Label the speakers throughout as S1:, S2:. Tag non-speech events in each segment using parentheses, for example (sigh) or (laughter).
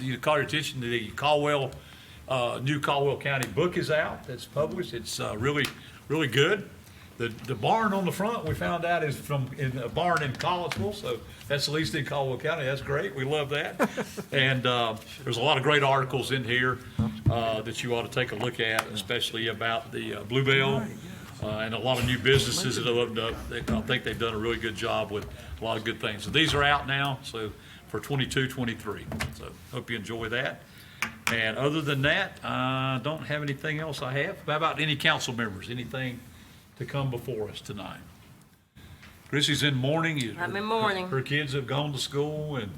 S1: you to call your attention to the Caldwell, uh, new Caldwell County book is out, that's published, it's, uh, really, really good. The, the barn on the front, we found out is from, in a barn in Collinsville, so that's at least in Caldwell County, that's great, we love that. And, uh, there's a lot of great articles in here, uh, that you ought to take a look at, especially about the uh, Bluebell, uh, and a lot of new businesses that have opened up. They- I think they've done a really good job with a lot of good things. So these are out now, so for 22, 23. So hope you enjoy that. And other than that, I don't have anything else I have. How about any council members, anything to come before us tonight? Chrissy's in mourning. You-
S2: I'm in mourning.
S1: Her kids have gone to school and,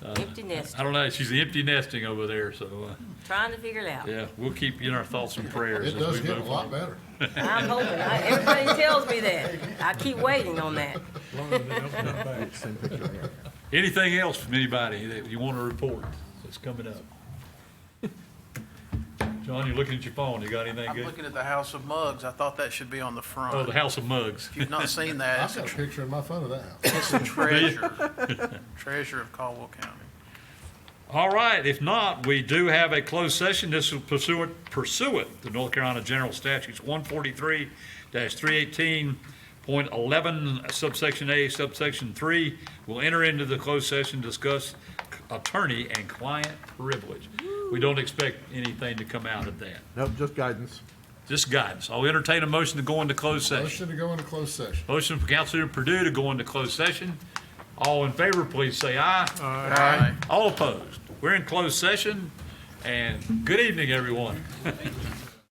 S2: Empty nest,
S1: I don't know, she's empty nesting over there, so, uh,
S2: trying to figure it out.
S1: yeah, we'll keep you in our thoughts and prayers.
S3: It
S1: as
S3: does
S1: we
S3: get a
S1: move
S3: lot
S1: on.
S3: better.
S2: I'm hoping, I- everybody tells me that. I keep waiting on that.
S1: Anything else from anybody that you want to report that's coming up? (laughs) John, you're looking at your phone. You got anything
S4: I'm
S1: good?
S4: looking at the House of Mugs. I thought that should be on
S1: Oh,
S4: the front.
S1: the
S4: If
S1: House of Mugs.
S4: you've not seen that,
S3: I've
S4: it's a
S3: got a
S4: tr-
S3: picture in my phone of
S1: (coughs)
S3: that house.
S4: it's a treasure,
S1: (laughs)
S4: treasure of Caldwell County.
S1: All right, if not, we do have a closed session. This is pursuant, pursuant to North Carolina General Statutes one forty-three three eighteen point eleven subsection A subsection three. We'll enter into the closed session, discuss attorney and client privilege. We don't expect anything to come out of that.
S5: Nope, just guidance.
S1: Just guidance. I'll entertain a motion to go into closed session.
S3: Motion to go into closed session.
S1: Motion for Councilor Purdue to go into closed session. All in favor, please say aye.
S4: Aye.
S1: All opposed. We're in closed session, and good evening, everyone.